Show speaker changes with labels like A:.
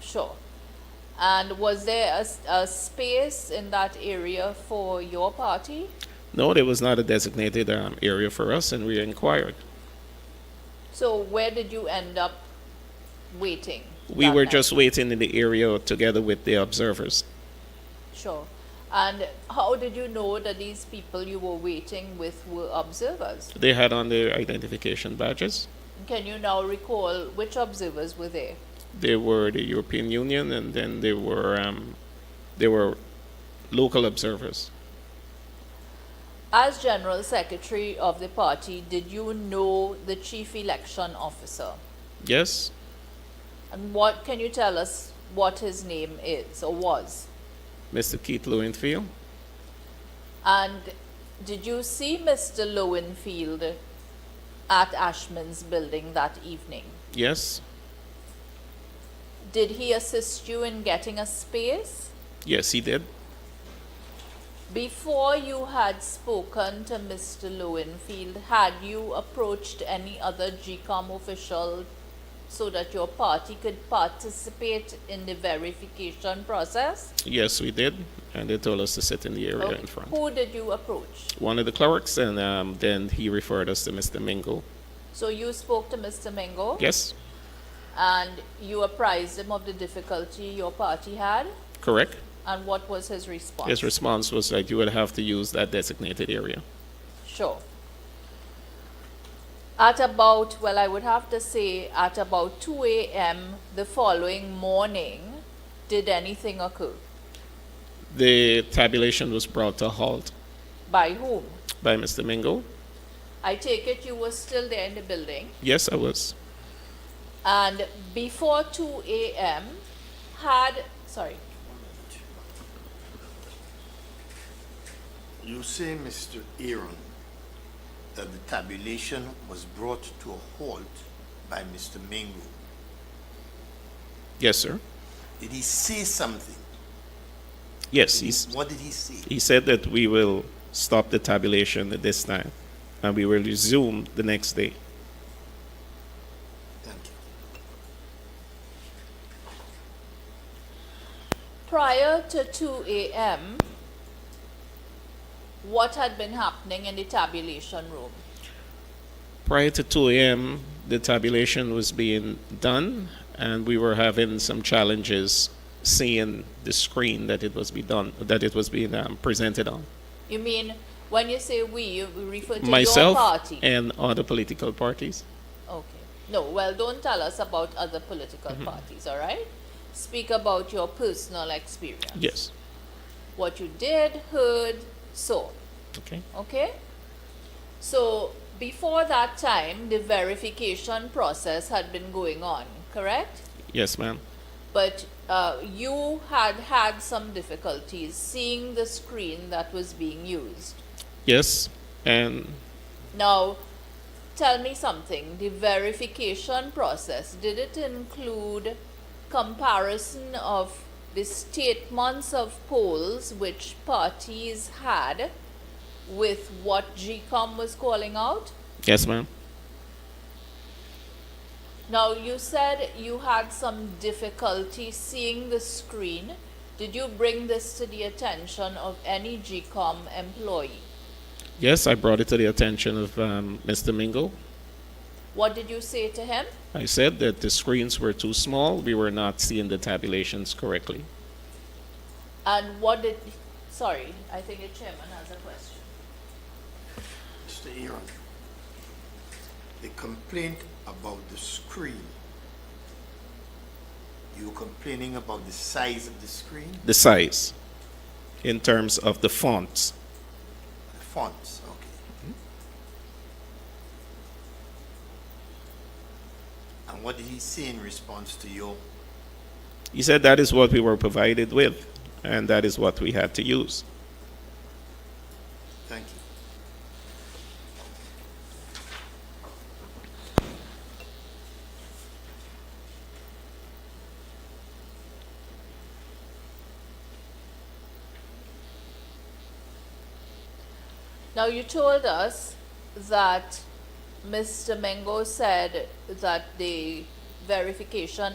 A: Sure. And was there a, s- a space in that area for your party?
B: No, there was not a designated um, area for us, and we inquired.
A: So where did you end up waiting?
B: We
A: that
B: were
A: night?
B: just waiting in the area together with the observers.
A: Sure. And how did you know that these people you were waiting with were observers?
B: They had on their identification badges.
A: Can you now recall which observers were there?
B: They were the European Union, and then they were um, they were local observers.
A: As General Secretary of the party, did you know the Chief Election Officer?
B: Yes,
A: And what can you tell us what his name is or was?
B: Mr. Keith Lewinfield.
A: And did you see Mr. Lowenfield at Ashman's building that evening?
B: Yes,
A: Did he assist you in getting a space?
B: yes, he did.
A: Before you had spoken to Mr. Lowenfield, had you approached any other GCOM official so that your party could participate in the verification process?
B: Yes, we did, and they told us to sit in the area in front.
A: Who did you approach?
B: One of the clerks, and um, then he referred us to Mr. Mingle.
A: So you spoke to Mr. Mingo?
B: Yes,
A: And you apprised him of the difficulty your party had?
B: correct.
A: And what was his response?
B: His response was that you would have to use that designated area.
A: Sure. At about, well, I would have to say at about 2 a.m. the following morning, did anything occur?
B: The tabulation was brought to a halt
A: By whom?
B: by Mr. Mingle.
A: I take it you were still there in the building.
B: Yes, I was.
A: And before 2 a.m., had, sorry,
C: You say, Mr. Aaron, that the tabulation was brought to a halt by Mr. Mingo.
B: Yes, sir.
C: Did he say something?
B: Yes, he's,
C: What did he say?
B: he said that we will stop the tabulation at this time and we will resume the next day.
C: Thank you.
A: prior to 2 a.m., what had been happening in the tabulation room?
B: Prior to 2 a.m., the tabulation was being done and we were having some challenges seeing the screen that it was be done that it was being um, presented on
A: You mean when you say we, you refer to
B: myself
A: your party?
B: and other political parties
A: Okay. No, well, don't tell us about other political parties, all right? Speak about your personal experience.
B: yes
A: What you did, heard, saw,
B: okay
A: okay? So, before that time, the verification process had been going on, correct?
B: yes ma'am
A: But uh, you had had some difficulties seeing the screen that was being used.
B: yes and
A: Now, tell me something. The verification process, did it include comparison of the statements of polls which parties had with what GCOM was calling out?
B: yes ma'am
A: Now, you said you had some difficulty seeing the screen. Did you bring this to the attention of any GCOM employee?
B: Yes, I brought it to the attention of um, Mr. Mingle.
A: What did you say to him?
B: I said that the screens were too small. We were not seeing the tabulations correctly.
A: And what did, sorry, I think the chairman has a question.
C: Mr. Aaron, the complaint about the screen, you were complaining about the size of the screen,
B: The size, in terms of the fonts.
C: the fonts, okay. And what did he say in response to your
B: He said that is what we were provided with, and that is what we had to use.
C: Thank you.
A: Now, you told us that Mr. Mengo said that the verification